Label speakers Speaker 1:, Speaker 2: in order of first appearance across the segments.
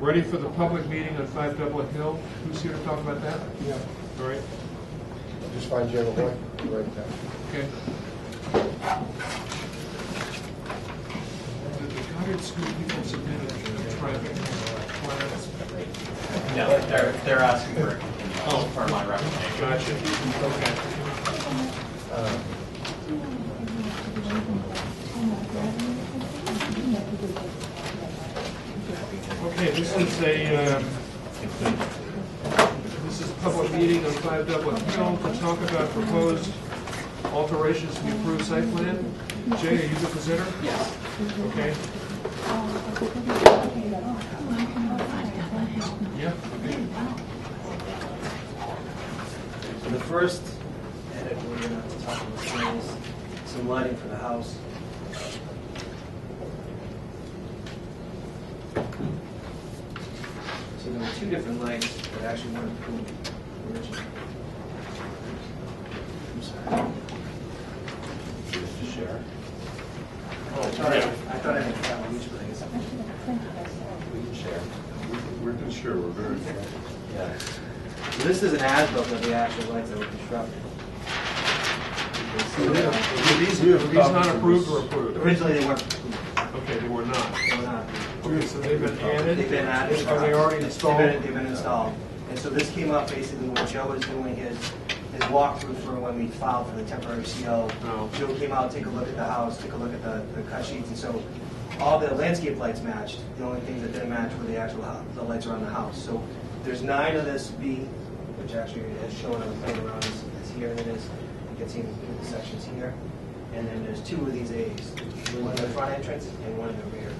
Speaker 1: ready for the public meeting on Five Dublin Hill. Who's here to talk about that?
Speaker 2: Yeah,
Speaker 1: All right,
Speaker 2: just find General White, write it down.
Speaker 1: okay. Did the Goddard School people submit a uh, traffic plans?
Speaker 3: No, they're, they're asking for a continuance for my recommendation.
Speaker 1: Gotcha, okay. Uh, Okay, this is a, um, this is public meeting on Five Dublin Hill to talk about proposed alterations to the approved site plan. Jay, are you the presenter?
Speaker 3: Yes.
Speaker 1: Okay. Yeah,
Speaker 4: So the first edit we're gonna have to talk about tonight is some lighting for the house. So there were two different lights that actually weren't approved originally. I'm sorry. Oh, I thought I, I thought I had that one, which, but I guess I
Speaker 5: We're not sure, we're very.
Speaker 4: Yeah. So this is an as-built of the actual lights that were constructed. You can
Speaker 5: Oh,
Speaker 4: see that.
Speaker 1: were these, were these not approved or approved?
Speaker 4: Originally, they weren't, approved.
Speaker 1: Okay, they were not.
Speaker 4: they were not. approved.
Speaker 1: Okay, so they've been added?
Speaker 4: They've been added.
Speaker 1: Are they already
Speaker 4: They've been-
Speaker 1: installed?
Speaker 4: They've been installed. And so this came up basically when Joe was doing his, his walkthrough for when we filed for the temporary CO.
Speaker 1: Oh.
Speaker 4: Joe came out, take a look at the house, took a look at the, the cut sheets, and so all the landscape lights matched. The only things that didn't match were the actual, hou- the lights around the house. So there's nine of this B, which actually is shown on the plan around this, this here, and it is, you can see the sections here. And then there's two of these A's, one in the front entrance and one in the rear.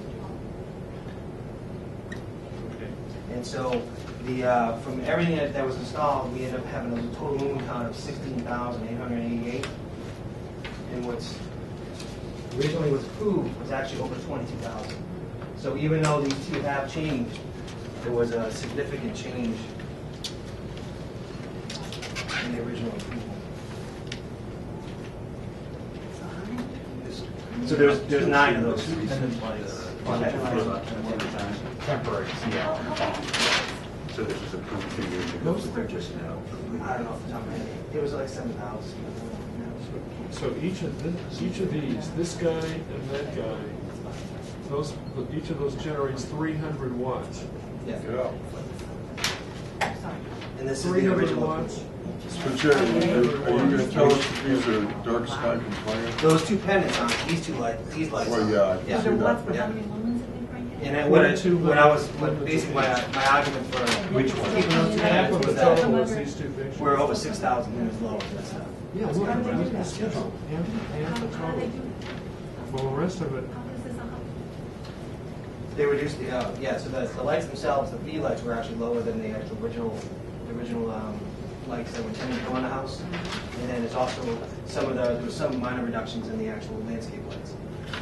Speaker 1: Okay.
Speaker 4: And so the, uh, from everything that, that was installed, we ended up having a total lumen count of sixteen thousand eight hundred eighty-eight. And what's originally was approved was actually over twenty-two thousand. So even though these two have changed, there was a significant change in the original approval. So there's, there's nine of those.
Speaker 3: Attendance lights.
Speaker 4: uh,
Speaker 3: Temporary CO.
Speaker 5: So this is approved two years ago.
Speaker 4: Those are
Speaker 5: just now.
Speaker 4: I don't know off the top of my head, it was like seven thousand.
Speaker 1: So each of this, each of these, this guy and that guy, those, each of those generates three hundred watts.
Speaker 4: Yeah.
Speaker 2: Yeah.
Speaker 4: And this is
Speaker 1: Three
Speaker 4: the
Speaker 1: hundred
Speaker 4: original.
Speaker 1: watts?
Speaker 5: So Jerry, are you going to tell us if these are dark sky compliant?
Speaker 4: Those two pendants on, it, these two lights, these lights.
Speaker 5: Well,
Speaker 4: on it.
Speaker 5: yeah, I can
Speaker 4: Yeah.
Speaker 5: see that.
Speaker 4: Yeah. And I,
Speaker 1: One
Speaker 4: what
Speaker 1: or
Speaker 4: I,
Speaker 1: two
Speaker 4: what I was,
Speaker 1: lights.
Speaker 4: what basically my, my argument for.
Speaker 6: Which one?
Speaker 4: Keeping those two
Speaker 1: Half of
Speaker 4: pendants
Speaker 1: the
Speaker 4: was
Speaker 1: total
Speaker 4: that
Speaker 1: is these two pictures.
Speaker 4: we're over six thousand units low, that's not.
Speaker 1: Yeah, look,
Speaker 6: How do they do
Speaker 1: that's the
Speaker 6: that?
Speaker 1: schedule, and, and the total. Well, the rest of it,
Speaker 4: They reduced the, uh, yeah, so the, the lights themselves, the V lights were actually lower than the actual original, the original, um, lights that were intended to go on the house. And then it's also, some of the, there was some minor reductions in the actual landscape lights.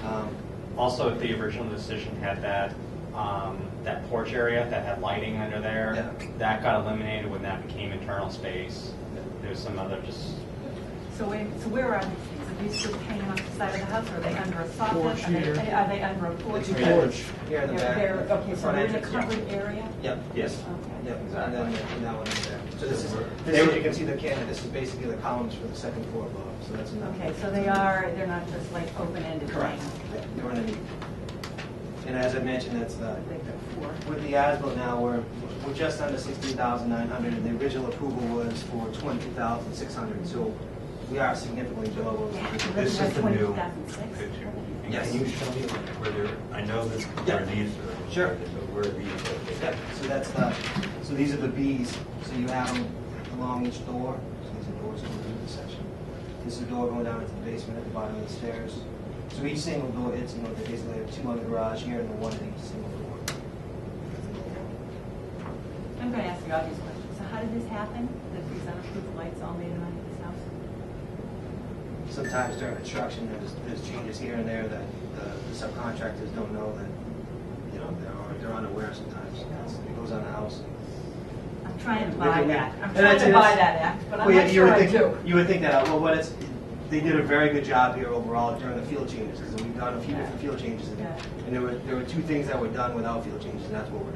Speaker 4: Um,
Speaker 3: Also, the original decision had that, um, that porch area that had lighting under there.
Speaker 4: Yeah.
Speaker 3: That got eliminated when that became internal space. There's some other just
Speaker 6: So wait, so where are these things? Are these just hanging on the side of the house, or are they under a soffit?
Speaker 1: Porch
Speaker 6: Are they-
Speaker 1: here.
Speaker 6: Are they under a porch?
Speaker 4: The two
Speaker 1: porch.
Speaker 4: Here in the back.
Speaker 6: They're-
Speaker 4: the
Speaker 6: okay, so
Speaker 4: front
Speaker 6: they're in a
Speaker 4: entrance, yeah.
Speaker 6: covered area?
Speaker 4: Yep.
Speaker 3: Yes.
Speaker 6: Okay.
Speaker 4: Yep, exactly. And then that one is there. So this is,
Speaker 3: They were-
Speaker 4: you can see the can, this is basically the columns for the second floor above, so that's enough.
Speaker 6: Okay, so they are, they're not just like open-ended
Speaker 4: Correct.
Speaker 6: things?
Speaker 4: Yeah, They're underneath. And as I mentioned, that's the,
Speaker 6: They've got four.
Speaker 4: with the ASBIL now, we're, we're just under sixteen thousand nine hundred, and the original approval was for twenty-two thousand six hundred, so we are significantly below. what we-
Speaker 5: This is the new
Speaker 6: 20,006.
Speaker 5: picture. And
Speaker 4: Yes.
Speaker 5: Can you show me where they're, I know this,
Speaker 4: Yeah.
Speaker 5: where these are.
Speaker 4: Sure.
Speaker 5: But where are these
Speaker 4: Yep,
Speaker 5: located?
Speaker 4: so that's the, so these are the Bs, so you have them along each door, so these are doors going through this section. This is a door going down into the basement at the bottom of the stairs. So each single door, it's, you know, they basically have two on the garage here and the one in each single door.
Speaker 6: I'm going to ask you obvious questions. So how did this happen, that these unapproved lights all made it onto this house?
Speaker 4: Sometimes during construction, there's, there's changes here and there that the the subcontractors don't know that, you know, they're, un- they're unaware sometimes. It goes on the house.
Speaker 6: I'm trying to
Speaker 4: Maybe
Speaker 6: buy
Speaker 4: we-
Speaker 6: that. I'm
Speaker 4: And
Speaker 6: trying
Speaker 4: that's-
Speaker 6: to buy
Speaker 4: that's-
Speaker 6: that act, but I'm
Speaker 4: Well, yeah,
Speaker 6: not
Speaker 4: you would
Speaker 6: sure I
Speaker 4: think-
Speaker 6: do.
Speaker 4: You would think that, uh, well, what it's, they did a very good job here overall during the field changes, because we've done a few different field changes. and-
Speaker 6: Yeah.
Speaker 4: And there were, there were two things that were done without field changes, and that's what we're